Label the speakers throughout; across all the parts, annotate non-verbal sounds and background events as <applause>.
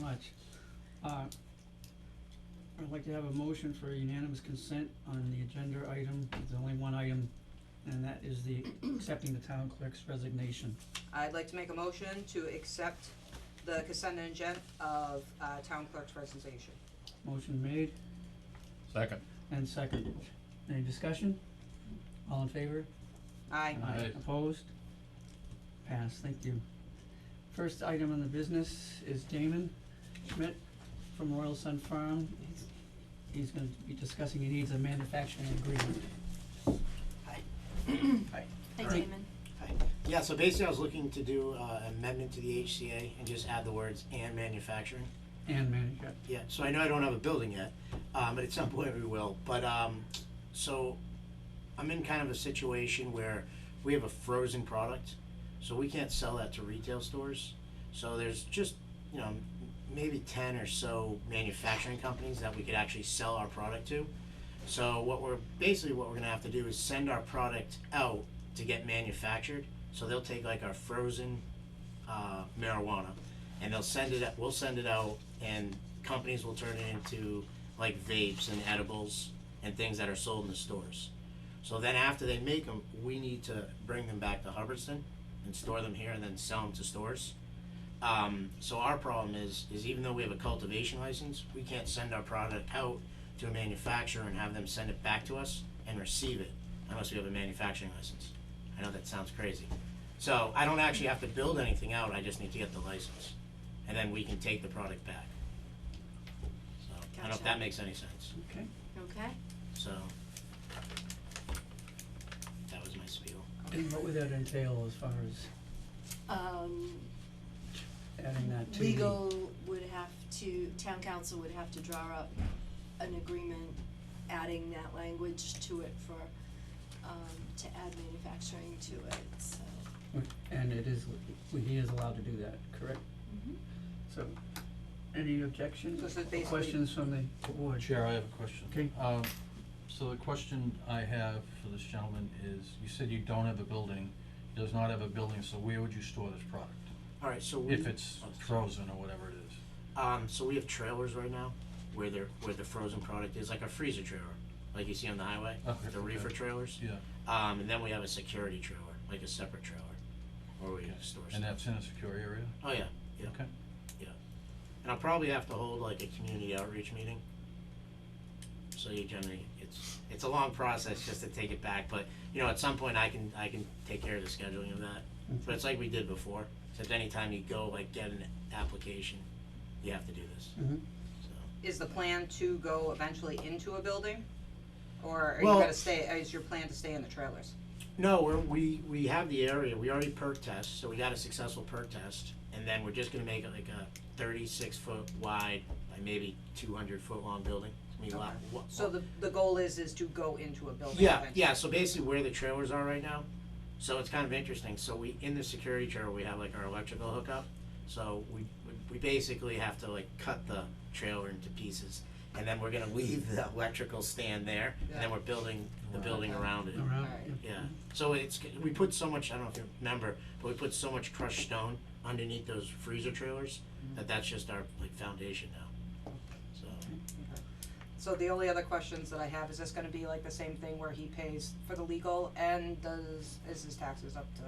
Speaker 1: much. Uh, I'd like to have a motion for unanimous consent on the agenda item, there's only one item, and that is the accepting the town clerk's resignation.
Speaker 2: I'd like to make a motion to accept the consent agenda of, uh, town clerk's presentation.
Speaker 1: Motion made
Speaker 3: Second.
Speaker 1: and seconded. Any discussion? All in favor?
Speaker 2: Aye.
Speaker 3: Aye.
Speaker 1: Opposed? Passed, thank you. First item on the business is Damon Schmidt from Royal Sun Farm. He's- He's gonna be discussing, he needs a manufacturing agreement.
Speaker 4: Hi,
Speaker 1: Alright.
Speaker 4: Damon.
Speaker 5: Yeah, so basically I was looking to do uh amendment to the HCA and just add the words and manufacturing.
Speaker 1: And manager,
Speaker 5: Yeah, so I know I don't have a building yet, um, but at some point we will, but, um, so I'm in kind of a situation where we have a frozen product, so we can't sell that to retail stores. So there's just, you know, m- maybe ten or so manufacturing companies that we could actually sell our product to. So what we're, basically what we're gonna have to do is send our product out to get manufactured, so they'll take like our frozen, uh, marijuana, and they'll send it, we'll send it out, and companies will turn it into like vapes and edibles and things that are sold in the stores. So then after they make them, we need to bring them back to Hubbardston and store them here and then sell them to stores. Um, so our problem is, is even though we have a cultivation license, we can't send our product out to a manufacturer and have them send it back to us and receive it unless we have a manufacturing license. I know that sounds crazy. So I don't actually have to build anything out, I just need to get the license. And then we can take the product back. So, I don't know if
Speaker 4: Gotcha.
Speaker 5: that makes any sense,
Speaker 1: okay?
Speaker 4: Okay.
Speaker 5: so. That was my spiel.
Speaker 1: And what would that entail as far as
Speaker 4: Um,
Speaker 1: adding that to the?
Speaker 4: legal would have to, town council would have to draw up an agreement, adding that language to it for, um, to add manufacturing to it, so.
Speaker 1: And it is, he is allowed to do that, correct? So, any objections
Speaker 2: Mm-hmm. So it's
Speaker 1: or
Speaker 2: basically-
Speaker 1: questions from the board?
Speaker 6: Chair, I have a question.
Speaker 1: Okay.
Speaker 6: Um, so the question I have for this gentleman is, you said you don't have a building, does not have a building, so where would you store this product?
Speaker 5: Alright, so we.
Speaker 6: If it's frozen or whatever it is?
Speaker 5: Um, so we have trailers right now where they're, where the frozen product is, like a freezer trailer, like you see on the highway,
Speaker 6: Oh, Okay,
Speaker 5: the reefer
Speaker 6: okay.
Speaker 5: trailers.
Speaker 6: Yeah,
Speaker 5: Um, and then we have a security trailer, like a separate trailer, where we store stuff.
Speaker 6: and that's in a secure area?
Speaker 5: Oh, yeah, yeah.
Speaker 6: Okay.
Speaker 5: And I'll probably have to hold like a community outreach meeting. So you generally, it's, it's a long process just to take it back, but, you know, at some point I can, I can take care of the scheduling of that. But it's like we did before, except anytime you go like get an application, you have to do this,
Speaker 1: Mhm.
Speaker 5: so.
Speaker 2: Is the plan to go eventually into a building? Or are you
Speaker 5: Well-
Speaker 2: gonna stay, is your plan to stay in the trailers?
Speaker 5: No, we're, we, we have the area, we already perk test, so we got a successful perk test, and then we're just gonna make it like a thirty-six foot wide by maybe two hundred foot long building, I mean, lot- wa-
Speaker 2: So the, the goal is, is to go into a building
Speaker 5: Yeah,
Speaker 2: eventually?
Speaker 5: yeah, so basically where the trailers are right now, so it's kind of interesting, so we, in the security trailer, we have like our electrical hookup, so we, we- we basically have to like cut the trailer into pieces, and then we're gonna <laughs> leave the electrical stand there, and then we're building, the building around it.
Speaker 1: Around,
Speaker 2: Alright.
Speaker 1: yeah.
Speaker 5: Yeah, so it's, we put so much, I don't know if you remember, but we put so much crushed stone underneath those freezer trailers that that's just our like foundation now. So,
Speaker 2: So the only other questions that I have, is this gonna be like the same thing where he pays for the legal and does, is his taxes up to?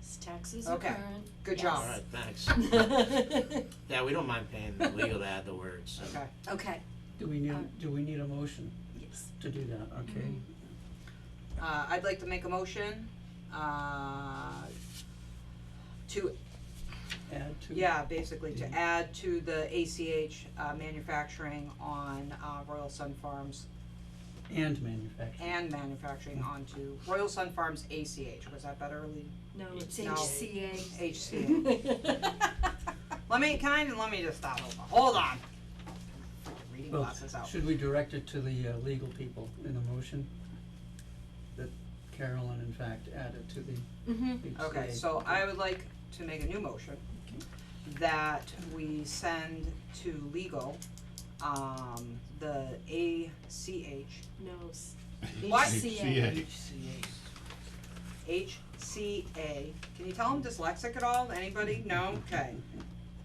Speaker 4: His taxes are
Speaker 2: Okay.
Speaker 4: current.
Speaker 2: Good
Speaker 4: Yes.
Speaker 2: job.
Speaker 5: alright,
Speaker 4: <laughs>
Speaker 5: thanks.
Speaker 4: Okay. <laughs>
Speaker 5: Yeah, we don't mind paying the legal to add the words, so.
Speaker 2: Okay,
Speaker 1: Do we need, do we need a motion
Speaker 4: yes.
Speaker 1: to do that, okay?
Speaker 2: Mm-hmm. uh, I'd like to make a motion, uh, to,
Speaker 1: Add to?
Speaker 2: yeah, basically to
Speaker 1: Yeah.
Speaker 2: add to the ACH, uh, manufacturing on, uh, Royal Sun Farms
Speaker 1: And manufacturing.
Speaker 2: and manufacturing onto Royal Sun Farms ACH, was that better, Lee?
Speaker 4: No, it's
Speaker 2: No.
Speaker 4: HCA.
Speaker 2: HCA. Let me, can I, let me just stop, hold on, hold on. Freaking Reading
Speaker 1: Well,
Speaker 2: glasses out.
Speaker 1: Should we direct it to the uh, legal people in the motion? That Carolyn in fact added to the
Speaker 4: <laughs> Mm-hmm.
Speaker 1: HCA?
Speaker 2: Okay, so I would like to make a new motion that we send to legal, um, the ACH,
Speaker 4: No, s-
Speaker 2: What?
Speaker 4: HCA.
Speaker 2: HCA. Can you tell I'm dyslexic at all, anybody? No, okay.